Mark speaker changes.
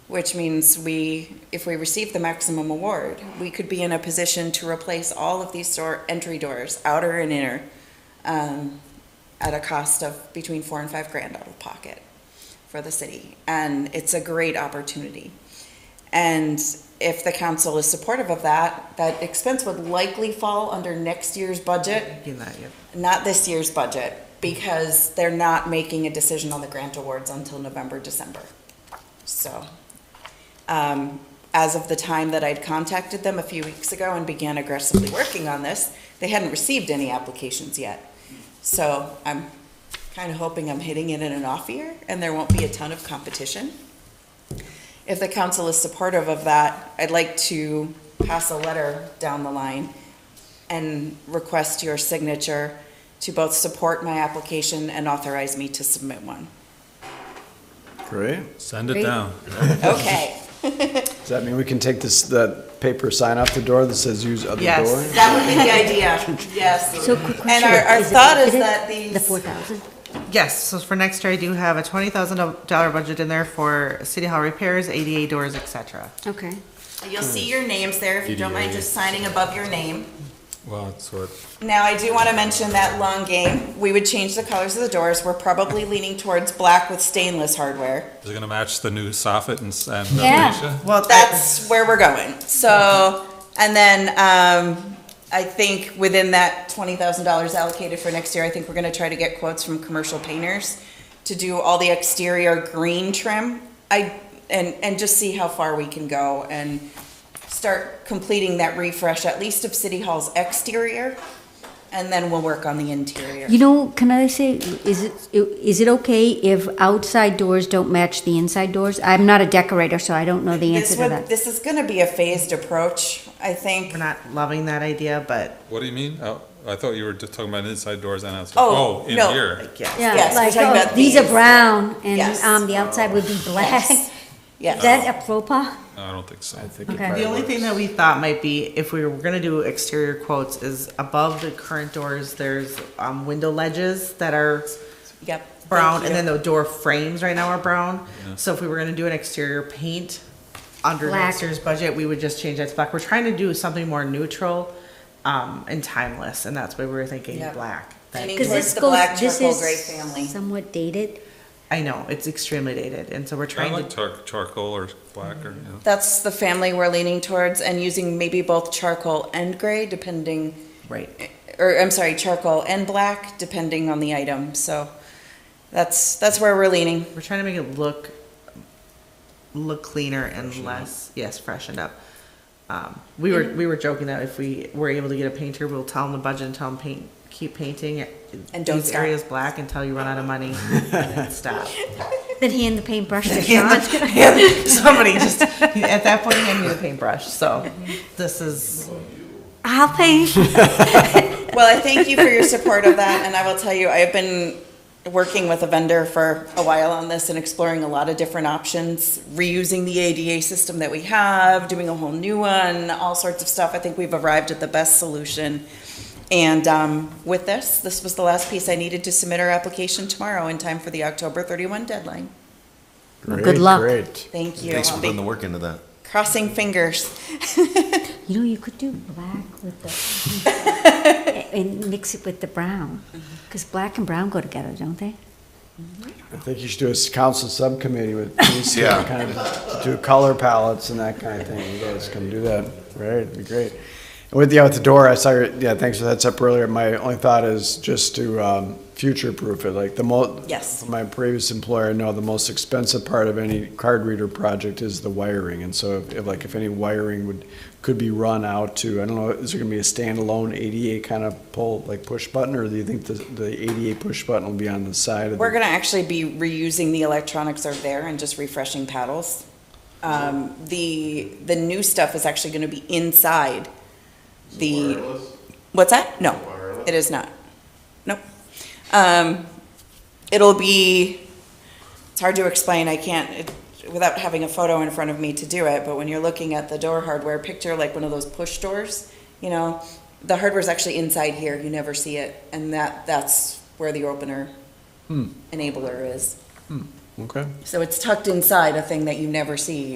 Speaker 1: which means we, if we receive the maximum award, we could be in a position to replace all of these door, entry doors, outer and inner, um, at a cost of between four and five grand out of pocket for the city. And it's a great opportunity. And if the council is supportive of that, that expense would likely fall under next year's budget
Speaker 2: Do that, yep.
Speaker 1: not this year's budget, because they're not making a decision on the grant awards until November, December. So, um, as of the time that I'd contacted them a few weeks ago and began aggressively working on this, they hadn't received any applications yet. So I'm kind of hoping I'm hitting it in an off year and there won't be a ton of competition. If the council is supportive of that, I'd like to pass a letter down the line and request your signature to both support my application and authorize me to submit one.
Speaker 3: Great.
Speaker 4: Send it
Speaker 1: Great.
Speaker 4: down.
Speaker 1: Okay,
Speaker 3: Does that mean we can take this, that paper sign off the door that says use other door?
Speaker 1: that would be the idea, yes.
Speaker 5: So quick question.
Speaker 1: And our, our
Speaker 5: is it
Speaker 1: thought is
Speaker 5: budgeted,
Speaker 1: that
Speaker 5: The
Speaker 1: these,
Speaker 5: four thousand?
Speaker 2: Yes, so for next year, I do have a twenty thousand dollar budget in there for city hall repairs, ADA doors, et cetera.
Speaker 5: Okay.
Speaker 1: you'll see your names there, if you don't mind just signing above your name.
Speaker 4: Well, that's what,
Speaker 1: Now, I do want to mention that long game, we would change the colors of the doors, we're probably leaning towards black with stainless hardware.
Speaker 4: is it gonna match the new soffit and, s- and
Speaker 5: Yeah.
Speaker 4: fascia?
Speaker 2: Well,
Speaker 1: That's where we're going, so, and then, um, I think within that twenty thousand dollars allocated for next year, I think we're gonna try to get quotes from commercial painters to do all the exterior green trim. I, and, and just see how far we can go and start completing that refresh, at least of City Hall's exterior. And then we'll work on the interior.
Speaker 5: You know, can I say, is it, is it okay if outside doors don't match the inside doors? I'm not a decorator, so I don't know the
Speaker 1: This
Speaker 5: answer to
Speaker 1: would,
Speaker 5: that.
Speaker 1: this is gonna be a phased approach, I think.
Speaker 2: We're not loving that idea, but
Speaker 4: What do you mean? Oh, I thought you were just talking about inside doors and outside.
Speaker 1: Oh,
Speaker 4: in
Speaker 1: no.
Speaker 4: here.
Speaker 2: yeah,
Speaker 1: yes,
Speaker 5: Yeah,
Speaker 1: we're
Speaker 5: like,
Speaker 1: talking
Speaker 5: oh,
Speaker 1: about
Speaker 5: these are
Speaker 1: these.
Speaker 5: brown and,
Speaker 1: Yes.
Speaker 5: um, the outside would be black.
Speaker 1: Yes.
Speaker 5: Is
Speaker 1: Yes.
Speaker 5: that apropos?
Speaker 4: No, I don't think so.
Speaker 3: I think it
Speaker 5: Okay.
Speaker 3: probably
Speaker 2: the only thing that
Speaker 3: works.
Speaker 2: we thought might be if we were gonna do exterior quotes is above the current doors, there's um, window ledges that are
Speaker 1: Yep. Thank
Speaker 2: brown, and
Speaker 1: you.
Speaker 2: then the door frames right now are brown. So if we were gonna do an exterior paint under
Speaker 5: Black.
Speaker 2: next year's budget, we would just change that to black. We're trying to do something more neutral um, and timeless, and that's why we were thinking
Speaker 1: Yeah.
Speaker 2: black. That-
Speaker 1: Leaning
Speaker 5: Because
Speaker 1: towards
Speaker 5: this
Speaker 1: the
Speaker 5: goes,
Speaker 1: black
Speaker 5: this
Speaker 1: charcoal gray family.
Speaker 5: is somewhat dated.
Speaker 2: I know it's extremely dated, and so we're
Speaker 4: I
Speaker 2: trying
Speaker 4: like
Speaker 2: to.
Speaker 4: char- charcoal or black or, you know.
Speaker 1: That's the family we're leaning towards and using maybe both charcoal and gray depending,
Speaker 2: Right.
Speaker 1: or I'm sorry, charcoal and black depending on the item. So that's, that's where we're leaning.
Speaker 2: We're trying to make it look look cleaner and less yes freshened up. Um, we were we were joking that if we were able to get a painter, we'll tell them the budget and tell them paint keep painting
Speaker 1: And don't
Speaker 2: these
Speaker 1: stop.
Speaker 2: areas black until you run out of money and then stop.
Speaker 5: Then hand the paintbrush to Sean.
Speaker 2: Somebody just at that point hand me the paintbrush. So this is
Speaker 5: I'll paint.
Speaker 1: Well, I thank you for your support of that, and I will tell you, I have been working with a vendor for a while on this and exploring a lot of different options, reusing the ADA system that we have, doing a whole new one, all sorts of stuff. I think we've arrived at the best solution. And um, with this, this was the last piece I needed to submit our application tomorrow in time for the October 31 deadline.
Speaker 3: Great,
Speaker 5: Good luck.
Speaker 3: Great.
Speaker 1: Thank you.
Speaker 6: Thanks for
Speaker 1: I'll be
Speaker 6: putting the work into that.
Speaker 1: Crossing fingers.
Speaker 5: You know, you could do black with the, and mix it with the brown, because black and brown go together, don't they?
Speaker 3: I think you should do a s- council subcommittee with these
Speaker 6: Yeah.
Speaker 3: kind of, do color palettes and that kind of thing. You guys can do that. Right, it'd be great. And with the out the door, I saw, your yeah, thanks for heads up earlier. My only thought is just to, um, future proof it, like the mo,
Speaker 1: Yes.
Speaker 3: from my previous employer, I know the most expensive part of any card reader project is the wiring. And so if, if, like if any wiring would, could be run out to, I don't know, is there gonna be a standalone ADA kind of pull, like push button? Or do you think the, the ADA push button will be on the side of
Speaker 1: We're
Speaker 3: the
Speaker 1: gonna actually be reusing the electronics are there and just refreshing paddles. Um, the, the new stuff is actually gonna be inside the. What's that? No, it is not. Nope. Um, it'll be, it's hard to explain, I can't, it- without having a photo in front of me to do it, but when you're looking at the door hardware, picture like one of those push doors, you know, the hardware's actually inside here, you never see it, and that, that's where the opener enabler is.
Speaker 3: Okay.
Speaker 1: So it's tucked inside a thing that you never see